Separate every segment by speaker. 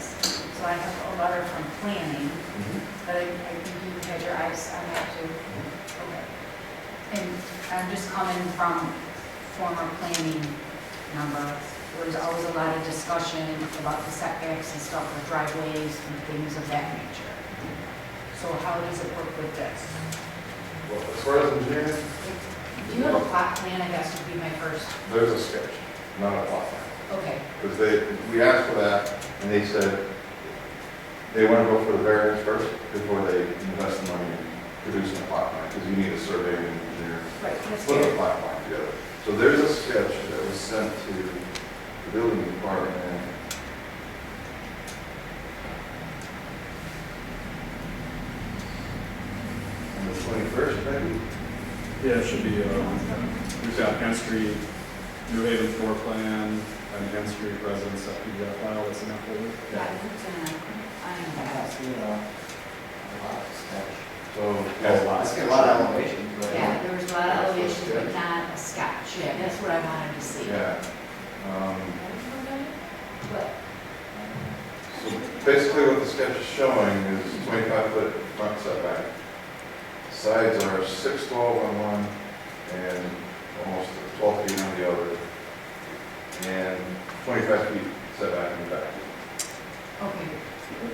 Speaker 1: I have a letter from planning,
Speaker 2: Mhm.
Speaker 1: but I I think you had your eyes on that too. Okay. And I'm just coming from former planning number. There was always a lot of discussion about the setbacks and stuff with driveways and things of that nature. So how does it work with this?
Speaker 2: Well, as far as engineering,
Speaker 1: Do you have a plot plan, I guess would be my first,
Speaker 2: there's a sketch, not a plot plan.
Speaker 1: okay,
Speaker 2: Because they, we asked for that, and they said they want to go for the variance first before they invest the money in producing a plot plan, because you need a survey and engineer
Speaker 1: right, that's
Speaker 2: put a
Speaker 1: good.
Speaker 2: plot plan together. So there's a sketch that was sent to the building department on the twenty-first, maybe?
Speaker 3: Yeah, it should be, um, we've got Penn Street, New Haven floor plan, and Penn Street residence that we got file that's in that folder.
Speaker 1: Yeah, it's, uh, I am-
Speaker 2: So.
Speaker 3: That's a lot. That's
Speaker 4: a lot of elevation, but.
Speaker 1: Yeah, there was a lot of elevations, but not a sketch. Yeah, that's what I wanted to see.
Speaker 2: Yeah. Um,
Speaker 1: But,
Speaker 2: So Basically, what the sketch is showing is twenty-five foot front setback. Sides are six twelve on one and almost twelve feet on the other. And twenty-five feet setback in the back.
Speaker 1: okay,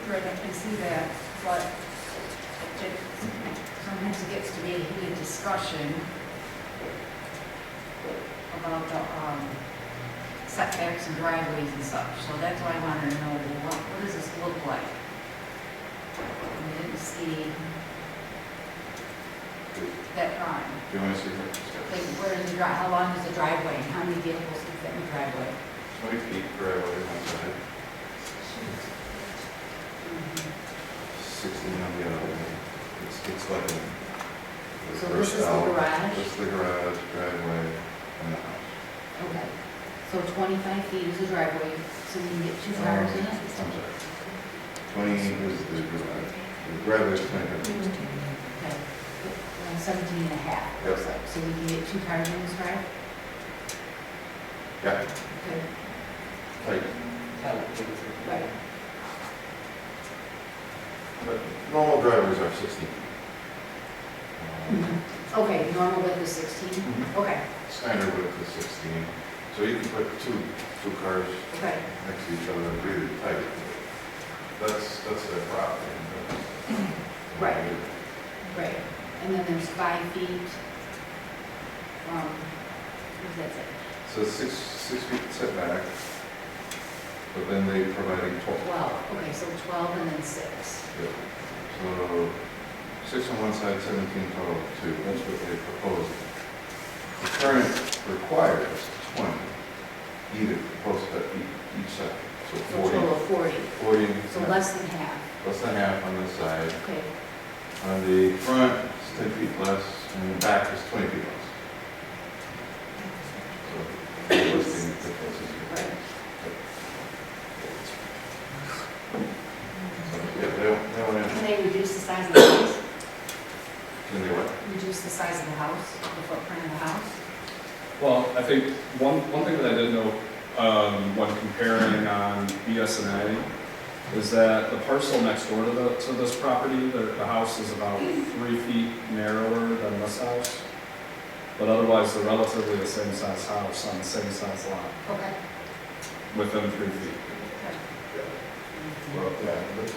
Speaker 1: Rick, I can see that, but it just- sometimes it gets to be a heated discussion about the um, setbacks and driveways and such, so that's why I wanted to know, well, what, what does this look like? And I didn't see
Speaker 2: Do
Speaker 1: that drawing.
Speaker 2: you want to see the
Speaker 1: Like,
Speaker 2: sketch?
Speaker 1: where is the dri, how long is the driveway, and how many vehicles can fit in the driveway?
Speaker 2: Twenty feet driveway on side, sixteen on the other. It's, it's like. a-
Speaker 1: So this is the
Speaker 2: out.
Speaker 1: garage?
Speaker 2: This is the garage, driveway, and the house.
Speaker 1: Okay, so twenty-five feet is the driveway, so we can get two
Speaker 2: Um,
Speaker 1: cars in
Speaker 2: I'm sorry.
Speaker 1: it?
Speaker 2: Twenty was the garage, the driveway is twenty.
Speaker 1: Okay, Uh, seventeen and a half, looks like, so we can get two cars in this drive?
Speaker 2: Yeah,
Speaker 1: Okay,
Speaker 2: like,
Speaker 1: right,
Speaker 2: but normal driveways are sixteen. Um,
Speaker 1: okay, normal width is sixteen?
Speaker 2: Mhm.
Speaker 1: Okay,
Speaker 2: Standard width is sixteen, so you can put two, two cars
Speaker 1: okay,
Speaker 2: next to each other and really tight. That's, that's their problem.
Speaker 1: Right. right, and then there's five feet, um, what does that say?
Speaker 2: So six, six feet setback, but then they provided twelve
Speaker 1: Twelve, okay, so twelve and then six.
Speaker 2: Yeah. So, six on one side, seventeen total, two, that's what they proposed. The current requires twenty, either proposed at e- each side, so
Speaker 1: So
Speaker 2: forty,
Speaker 1: total of forty,
Speaker 2: forty,
Speaker 1: so
Speaker 2: yeah,
Speaker 1: less than half,
Speaker 2: less than half on this side.
Speaker 1: okay.
Speaker 2: On the front, it's ten feet less, and the back is twenty feet less. So, listing the proposals here.
Speaker 1: Right.
Speaker 2: So, yeah, they, don't- they want
Speaker 1: Can they reduce the size of the house?
Speaker 2: can they what?
Speaker 1: Reduce the size of the house, the footprint of the house?
Speaker 3: Well, I think one, one thing that I did know, um, when comparing on BSNA is that the parcel next door to the, to this property, the, the house is about three feet narrower than this house. But otherwise, they're relatively the same size house on the same size lot,
Speaker 1: Okay.
Speaker 3: within three feet.
Speaker 2: Well, yeah, that's.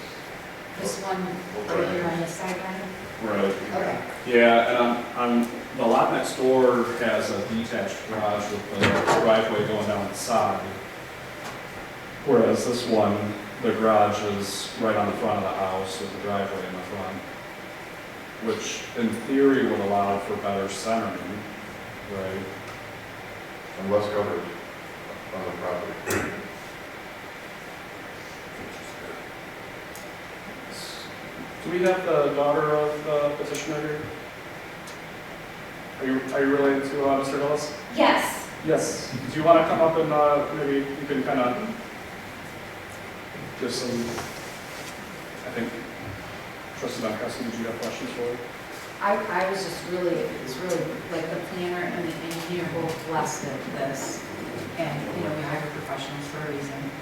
Speaker 1: This one, right here on this side, right?
Speaker 3: Right.
Speaker 1: Okay.
Speaker 3: Yeah, and on, on, the lot next door has a detached garage with the driveway going down the side. Whereas this one, the garage is right on the front of the house with the driveway in the front. Which in theory would allow for better centering, right?
Speaker 2: and less coverage on the property.
Speaker 3: Do we have the daughter of the petitioner here? Are you, are you related to, uh, Mr. Hillis?
Speaker 5: Yes,
Speaker 3: Yes, do you want to come up and uh, maybe you can kind of give some, I think, trustee Bonkowski, did you have questions for her?
Speaker 1: I, I was just really, it was really, like, the planner and the engineer both blessed at this. And, you know, we hired professionals for a reason.